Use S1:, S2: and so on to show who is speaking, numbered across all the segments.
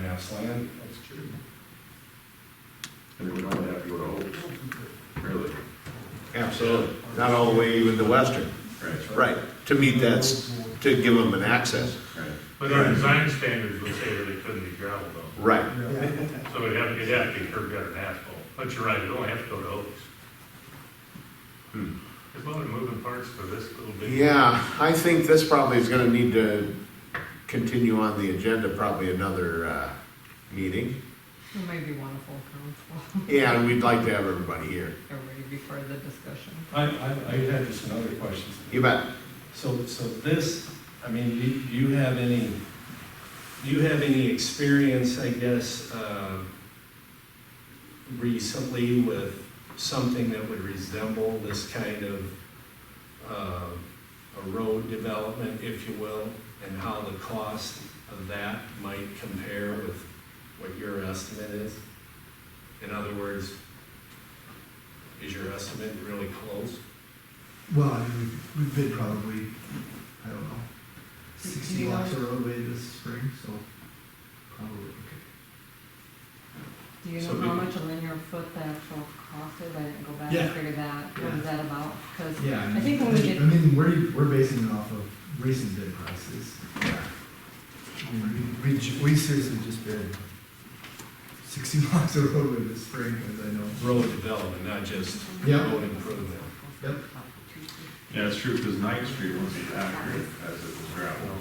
S1: tax land.
S2: That's true.
S3: And they would only have to go to Oaks, really.
S4: Absolutely. Not all the way even to Western.
S3: Right,
S4: Right, to meet that, s- to give them an access.
S3: right.
S5: But our design standards would say that it couldn't be gravel though,
S4: Right,
S2: Yeah.
S5: so it'd have, it'd have to be curb gutter and asphalt, but you're right, it'd only have to go to Oaks.
S4: Hmm.
S5: There's a lot of moving parts for this little bit.
S4: yeah, I think this probably is gonna need to continue on the agenda, probably another, uh, meeting.
S6: It might be wonderful council,
S4: Yeah, and we'd like to have everybody here.
S6: everybody before the discussion.
S1: I, I, I had just another question.
S4: You bet.
S1: So, so this, I mean, do you you have any, do you have any experience, I guess, uh, recently with something that would resemble this kind of, uh, a road development, if you will, and how the cost of that might compare with what your estimate is? In other words, is your estimate really close?
S2: Well, I mean, we have bid probably, I don't know,
S6: Do you
S2: sixty
S6: know?
S2: lots of roadway this spring, so probably, okay.
S6: Do you
S1: So
S6: know how
S1: we-
S6: much a linear foot the actual cost is? I didn't go back
S1: Yeah.
S6: and figure that, what is
S2: Yeah.
S6: that about? Because
S2: Yeah, I mean.
S6: I think when we get-
S2: I mean, we're, we're basing it off of recent bid prices. I mean, We, we ju- we seriously just bid sixty lots of roadway this spring, as I know.
S1: road development, not just
S2: Yeah.
S1: road improvement.
S2: Yep.
S3: Yeah, it's true, because Ninth Street wasn't accurate as it was gravel.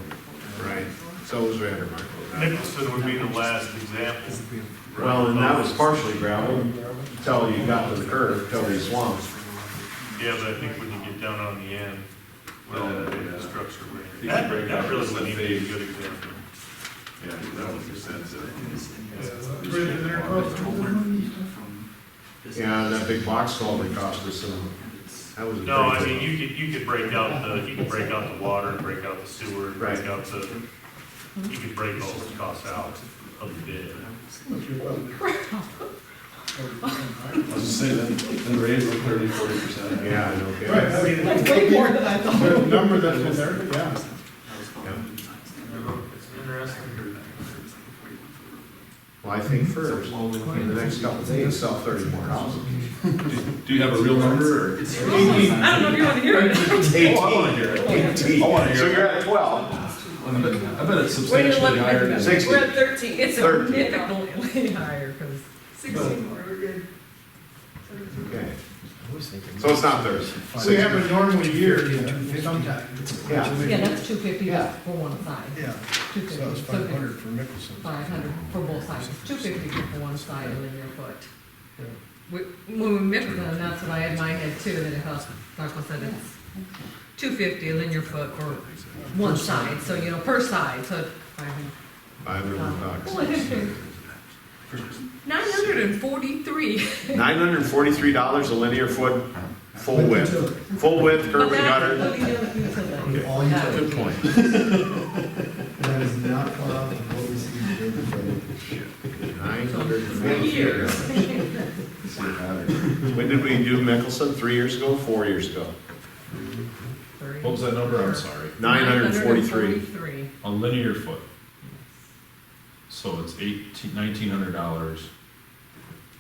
S4: Right, so was Vandermark.
S5: Nicholson would be the last example.
S4: Well, and that was partially gravel until you got to the curve, till these swamps.
S5: Yeah, but I think when you get down on the end, well,
S3: Well, yeah.
S5: the structure,
S3: You
S5: that,
S3: can break
S5: that
S3: out
S5: really
S3: the
S5: would be a
S3: phase.
S5: good example.
S3: Yeah, that was expensive.
S4: Yeah, and that big box culvert cost us some, that was. a
S5: No,
S4: big-
S5: I mean, you could, you could break out the, you could break out the water, break out the sewer, break
S4: Right.
S5: out the, you could break all those costs out of the bid.
S3: I was just saying, then, then raise it thirty, forty percent.
S4: Yeah, no kidding.
S6: That's way more than I thought.
S7: number that's in there, yeah.
S5: It's interesting.
S4: Well, I think first, in the next couple of days, sell thirty more houses.
S3: Do you have a real number, or?
S6: I don't know if you want to hear it.
S3: Oh, I wanna hear it. I wanna hear it.
S4: So you're at twelve,
S3: I bet- I bet it's
S6: Wait, let
S3: substantially
S6: me-
S3: higher than.
S4: Six.
S6: We're at thirteen, it's a
S4: Thirteen.
S6: significantly higher, because sixteen more, we're good.
S4: okay, so it's not thirty.
S7: So you have a normal year, you know, sometime.
S4: Yeah.
S6: Yeah, that's two fifty
S4: Yeah.
S6: for one side,
S7: Yeah,
S6: two
S7: so
S6: fifty.
S7: that was five hundred for Mickelson.
S6: Five hundred for both sides, two fifty for one side and then your foot.
S7: Yeah.
S6: We- When we mixed them, that's what I had mine had too, that it helps, Michael said it's two fifty a linear foot for one side, so you know, per side, so.
S4: Five hundred bucks.
S6: Nine hundred and forty-three,
S4: Nine hundred and forty-three dollars a linear foot, full width, full width,
S6: but
S4: curb and
S6: that's
S4: gutter.
S6: what we do with utilities.
S2: All utility,
S4: Good point.
S2: that is not far off of what we see in the bid price.
S4: Nine hundred and
S6: For years.
S4: forty-three.
S3: It's a matter.
S4: When did we do Mickelson? Three years ago, four years ago?
S3: What was that number, I'm sorry,
S4: Nine hundred and forty-three.
S6: 943.
S3: a linear foot? So it's eighteen, nineteen hundred dollars,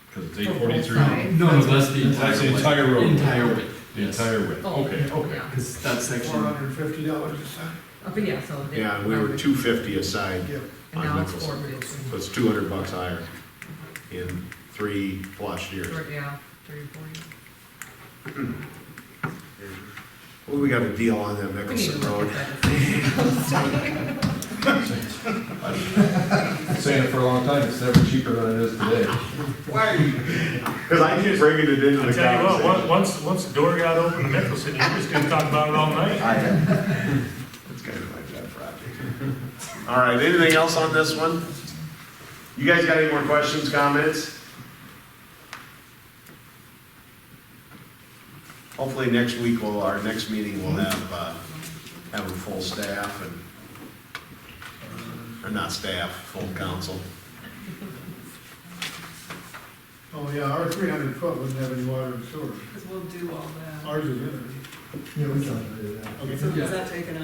S3: because it's
S6: For
S3: eight
S6: both
S3: forty-three.
S6: sides.
S8: No, that's the
S3: That's the
S8: entire
S3: entire
S8: width.
S3: road,
S8: Entire width,
S3: the entire width,
S6: Oh,
S3: okay, okay.
S6: yeah.
S8: because that
S7: Four
S8: section,
S7: hundred and fifty dollars a side.
S6: Uh, But yeah, so. they-
S4: Yeah, and we were two fifty a side,
S7: Yep.
S6: And now it's
S4: on Mickelson.
S6: four bills.
S4: so it's two hundred bucks higher in three plus years.
S6: Yeah, three, four years.
S4: Well, we got a deal on that
S6: We need to
S4: Mickelson
S6: look
S4: Road.
S6: at that.
S3: Saying it for a long time, it's never cheaper than it is today.
S4: Cause I keep bringing it into
S5: I
S4: the
S5: tell you what, on-
S4: conversation.
S5: once, once the door got open to Mickelson, you just gonna talk about it all night.
S4: It's kind of like that project. All right, anything else on this one? You guys got any more questions, comments? Hopefully next week, will our next meeting, we'll have, uh, have a full staff and, uh, or not staff, full council.
S7: Oh, yeah, our three hundred foot wouldn't have any water and sewer.
S6: Because we'll do all that.
S7: Ours is in there.
S2: Yeah, we calculated that.
S7: Okay.
S6: So is that taken